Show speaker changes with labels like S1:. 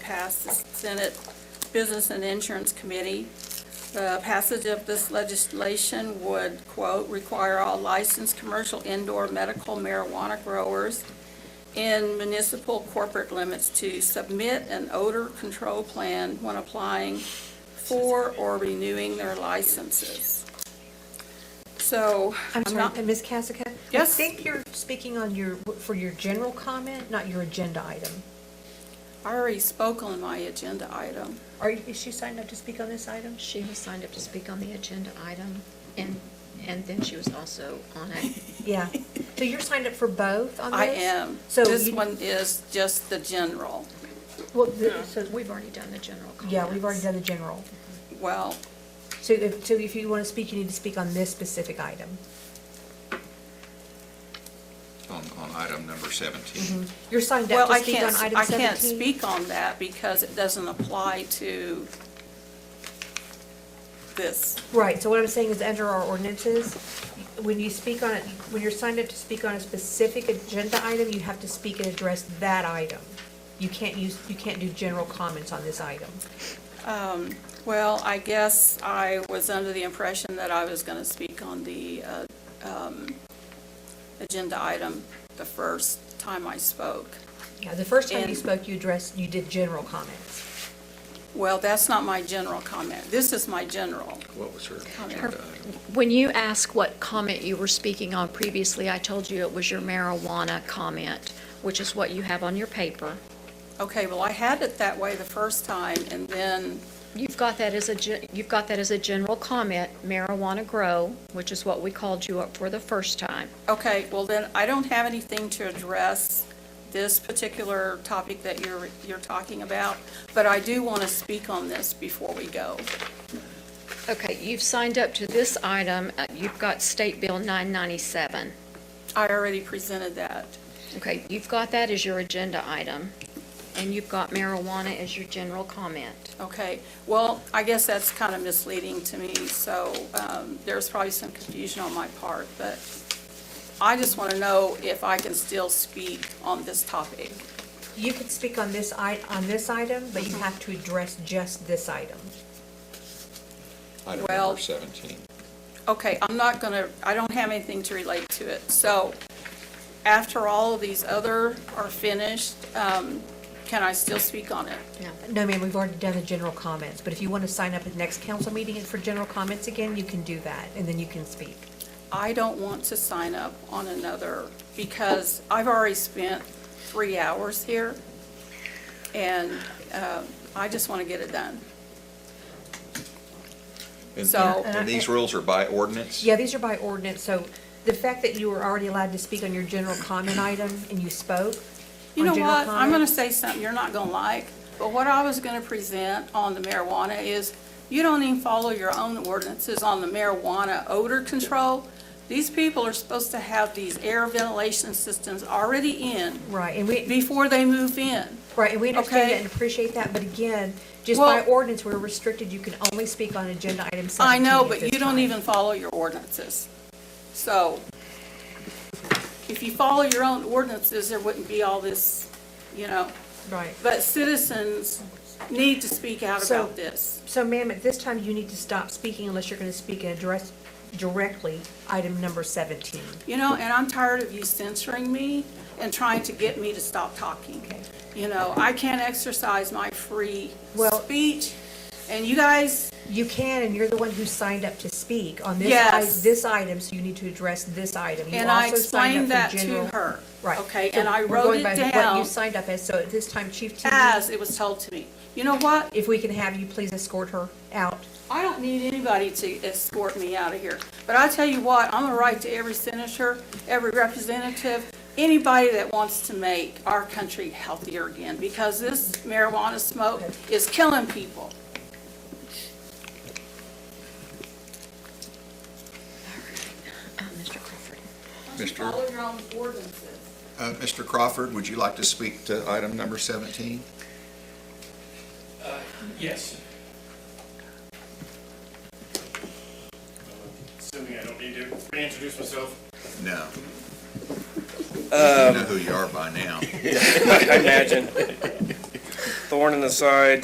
S1: passed the Senate Business and Insurance Committee. The passage of this legislation would, quote, "require all licensed commercial indoor medical marijuana growers in municipal corporate limits to submit an odor control plan when applying for or renewing their licenses." So,
S2: I'm
S1: I'm not,
S2: sorry, Ms. Cassica?
S1: Yes?
S2: I think you're speaking on your, for your general comment, not your agenda item.
S1: I already spoke on my agenda item.
S2: Are, you- is she signed up to speak on this item?
S3: She was signed up to speak on the agenda item, and, and then she was also on a,
S2: Yeah. So you're signed up for both on this?
S1: I am.
S2: So
S1: This
S2: you-
S1: one is just the general.
S2: Well, the- so,
S3: we've already done the general comments.
S2: yeah, we've already done the general.
S1: Well,
S2: So if, so if you want to speak, you need to speak on this specific item.
S4: on, on item number 17.
S2: You're signed up
S1: well,
S2: to
S1: I
S2: speak
S1: can't,
S2: on
S1: s-
S2: item
S1: I can't
S2: 17?
S1: speak on that because it doesn't apply to this.
S2: Right, so what I'm saying is under our ordinances, when you speak on, it, when you're signed up to speak on a specific agenda item, you have to speak and address that item. You can't use, you can't do general comments on this item.
S1: Well, I guess I was under the impression that I was going to speak on the uh, um, agenda item the first time I spoke.
S2: Yeah, the first time you
S1: And-
S2: spoke, you addressed, you did general comments.
S1: Well, that's not my general comment. This is my general.
S4: What was her agenda item?
S3: When you ask what comment you were speaking on previously, I told you it was your marijuana comment, which is what you have on your paper.
S1: Okay, well, I had it that way the first time, and then,
S3: You've got that as a, gen- you've got that as a general comment, marijuana grow, which is what we called you up for the first time.
S1: okay, well, then I don't have anything to address this particular topic that you're, you're talking about, but I do want to speak on this before we go.
S3: Okay, you've signed up to this item, uh, you've got State Bill 997.
S1: I already presented that.
S3: Okay, you've got that as your agenda item, and you've got marijuana as your general comment.
S1: Okay, well, I guess that's kind of misleading to me, so um, there's probably some confusion on my part, but I just want to know if I can still speak on this topic.
S2: You could speak on this i, on this item, but you have to address just this item.
S4: Item
S1: Well-
S4: number 17.
S1: Okay, I'm not going to, I don't have anything to relate to it. So after all of these other are finished, um, can I still speak on it?
S3: No.
S2: No, ma'am, we've already done the general comments, but if you want to sign up at the next council meeting for general comments again, you can do that, and then you can speak.
S1: I don't want to sign up on another because I've already spent three hours here, and um, I just want to get it done.
S4: And-
S1: So-
S4: And these rules are by ordinance?
S2: Yeah, these are by ordinance, so the fact that you were already allowed to speak on your general comment item and you spoke
S1: You
S2: on
S1: know
S2: general
S1: what? I'm going to
S2: comments-
S1: say something you're not going to like, but what I was going to present on the marijuana is, you don't even follow your own ordinances on the marijuana odor control. These people are supposed to have these air ventilation systems already in
S2: Right, and we,
S1: before they move in.
S2: Right, and we understand
S1: Okay.
S2: that and appreciate that, but again, just by
S1: Well-
S2: ordinance, we're restricted, you can only speak on agenda item
S1: I
S2: seventeen
S1: know,
S2: at
S1: but
S2: this
S1: you don't
S2: time.
S1: even follow your ordinances. So if you follow your own ordinances, there wouldn't be all this, you know.
S2: Right.
S1: But citizens need to speak out
S2: So-
S1: about this.
S2: So ma'am, at this time, you need to stop speaking unless you're gonna speak and address directly item number seventeen.
S1: You know, and I'm tired of you censoring me and trying to get me to stop talking. You know, I can't exercise my free
S2: Well-
S1: speech, and you guys,
S2: You can, and you're the one who signed up to speak on this, i-
S1: Yes.
S2: this item, so you need to address this item. You
S1: and I
S2: also signed up
S1: explained
S2: for
S1: that to
S2: general-
S1: her.
S2: Right.
S1: Okay,
S2: So
S1: and I
S2: we're
S1: wrote
S2: going
S1: it
S2: by What you
S1: down
S2: signed up as, so at this time, Chief Tierney,
S1: as it was told to me. You know what?
S2: if we can have you please escort her out.
S1: I don't need anybody to escort me out of here. But I tell you what, I'm gonna write to every senator, every representative, anybody that wants to make our country healthier again, because this marijuana smoke is killing people.
S3: Uh, Mr. Crawford.
S4: Mr.
S1: your own ordinances.
S4: Uh, Mr. Crawford, would you like to speak to item number 17?
S5: Yes. Assuming I don't need to reintroduce myself.
S4: No. Um, You know who you are by now.
S5: I imagine.
S6: thorn in the side